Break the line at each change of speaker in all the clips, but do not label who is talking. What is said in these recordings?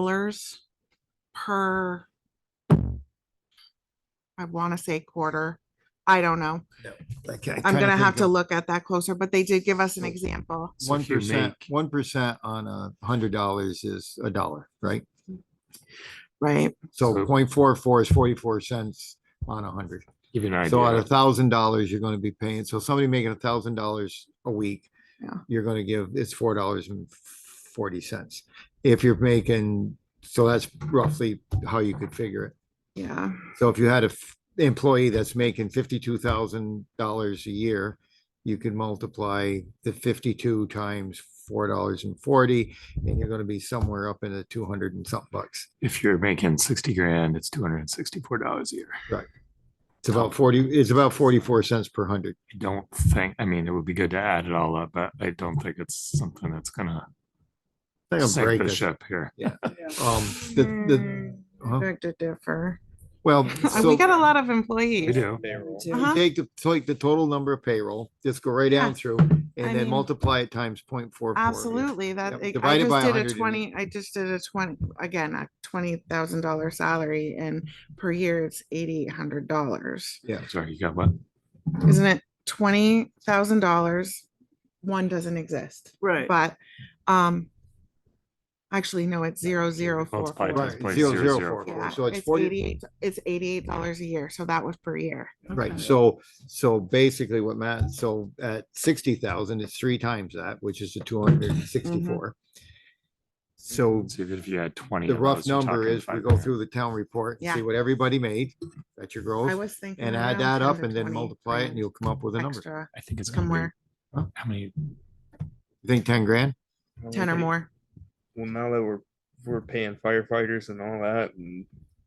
dollars per, I want to say quarter. I don't know.
I ca- I
I'm
kinda
gonna have
think
to
of
look at that closer, but they did give us an example.
So
One
if you
percent,
make-
one percent on a hundred dollars is a dollar, right?
Right,
So
So-
0.44 is forty-four cents on a hundred.
Give you an
So on a
idea.
thousand dollars, you're gonna be paying, so somebody making a thousand dollars a week,
Yeah.
you're gonna give, it's four dollars and forty cents. If you're making, so that's roughly how you could figure it.
yeah,
So if you had a f- employee that's making fifty-two thousand dollars a year, you could multiply the fifty-two times four dollars and forty, and you're gonna be somewhere up in the two hundred and something bucks.
If you're making sixty grand, it's two hundred and sixty-four dollars a year.
It's about forty, it's about forty-four cents per hundred.
I don't think, I mean, it would be good to add it all up, but I don't think it's something that's gonna
Think I'll break
sink the
it.
ship here.
Um, the, the, uh-huh. huh?
beg to differ.
well, so
Uh, We got a lot of
You
employees.
do.
Uh-huh.
take the, take the total number of payroll, just go right down
Yeah.
through,
I
and then
mean,
multiply it times point four.
Absolutely,
Yep.
that, I- I
Divided by
just did
100
a
and-
twenty, I just did a twenty, again, a twenty thousand dollar salary and per year it's eighty-eight hundred dollars.
Sorry, you got what?
Isn't it twenty thousand dollars? One doesn't exist.
Right.
But, um, actually, no, it's zero, zero, four,
Multiply
four.
times
Right,
point
zero,
zero
zero,
zero
four,
four.
Yeah,
so it's
it's
40
eighty-eight, it's eighty-eight dollars a year, so that was per year.
Right,
Okay.
so, so basically what Matt, so at sixty thousand, it's three times that, which is the two hundred
Mm-hmm.
and sixty-four. So
So even if you had twenty.
the
of
rough
those, you're
number
talking
is, we
five
go
grand.
through the town report, and see
Yeah.
what everybody made, that's
I
your gross,
was thinking.
and add
around
that up
10 to
and then
20
multiply it, and
grand
you'll come up with a number.
Extra,
I think it's gonna
somewhere,
be, how many,
You Think ten grand?
Well,
Mm-hmm.
ten or
okay.
more.
Well, now that we're we're paying firefighters and all that, and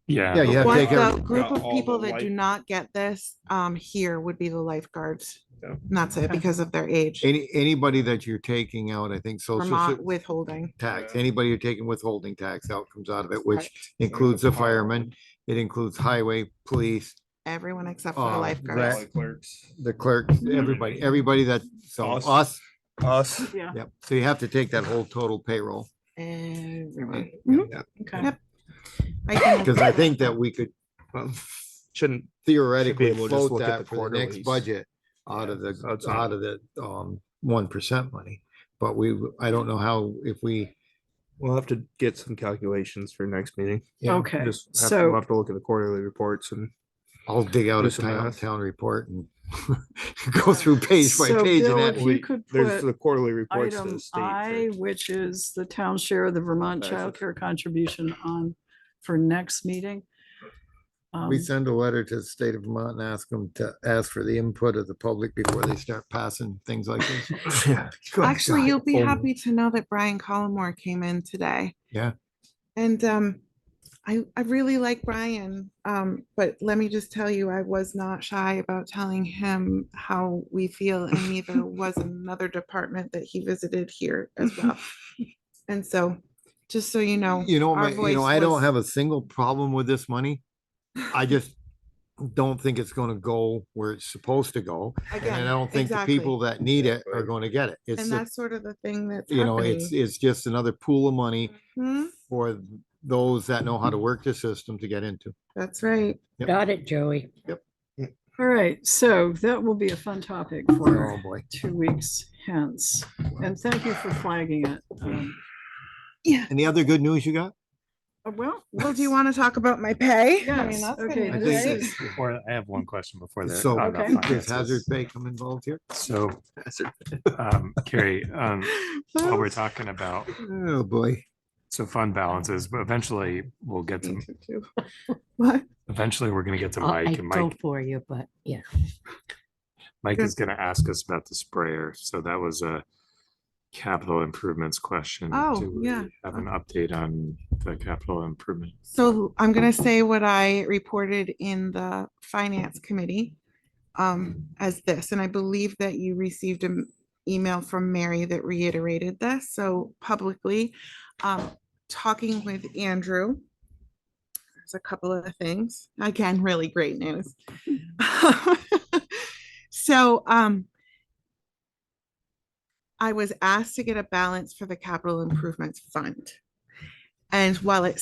yeah.
Yeah,
the
you have to
whole-
take
What
every-
the group
Got
of
all
people
the
that do
life-
not get this, um, here would be the lifeguards.
Yeah.
And That's it,
Okay.
because of their age,
Any, anybody that you're taking out, I think, social
Vermont
se-
withholding.
tax,
Yeah.
anybody you're taking withholding tax out comes out of it, which
Correct.
includes the
Fire.
firemen, it includes highway, police,
Everyone except for the
Uh,
lifeguards.
Right.
clerks,
the clerk,
Mm-hmm.
everybody, everybody that, so
Us.
us,
us.
Yeah.
Yep, so you have to take that whole total payroll.
Everyone. Mm-hmm.
Okay.
Yep. I can-
Because I think that we could
Shouldn't
theoretically
able to just
float
look at
that
the
for the next
quarterlies.
budget out
Yeah,
of the,
so it's
out
not-
of the, um, one percent money. But we, I don't know how, if we.
we'll have to get some calculations for next meeting.
yeah,
Okay,
Just have to,
so-
we'we'll have to look at the quarterly reports and
I'll dig out
Do
a
some
town,
math.
town report and go through page by
So,
page.
Bill,
and
if
that-
you could
there's
put
the quarterly reports to
Item
the state.
I,
for-
which is the town share of the Vermont
That's it.
Child Care contribution on for next meeting. Um,
We send a letter to the state of Vermont and ask them to ask for the input of the public before they start passing things like this. Good
Actually,
God.
you'll be
Oh,
happy to know that Brian Collmore came in today.
Yeah.
And um, I, I really like Brian, um, but let me just tell you, I was not shy about telling him how we feel and neither was another department that he visited here as well. And so, just so you know.
You know,
our
my, you know,
voice
I don't
was-
have a single problem with this money. I just don't think it's gonna go where it's supposed to go. And I
Again,
don't think the
exactly.
people that need it are
Exactly.
gonna get it. It's,
And
a-
that's sort of the thing that's
you know, it's,
happening.
it's just another pool of money
Hmm,
for those that know how to work the system to get into.
That's right.
Got it, Joey.
All right, so that will be a fun topic
Oh,
for
boy.
two weeks hence. And thank you for flagging it. Um,
Any other good news you got?
uh, Well.
Well, do you
let's-
want to talk about my pay? I mean,
Yes,
that's gonna be
okay,
I
great.
this
think
is-
Before, I have one question before that.
So
about
Okay.
does
finances.
hazard pay come involved here?
So, um, Carrie, um, while we're talking about,
Oh, boy.
so fund balances, but eventually we'll get to,
Me too, too. What?
eventually we're gonna get to
I'll- I
Mike and
go
Mike,
for you, but yeah.
Mike is gonna ask us about the sprayer. So that was a capital improvements question.
Oh,
Do we
yeah.
Have an update on the capital improvement.
So I'm gonna say what I reported in the finance committee um, as this, and I believe that you received an email from Mary that reiterated this, so publicly, um, talking with Andrew. There's a couple of things, again, really great news. So, um, I was asked to get a balance for the capital improvements fund. And while it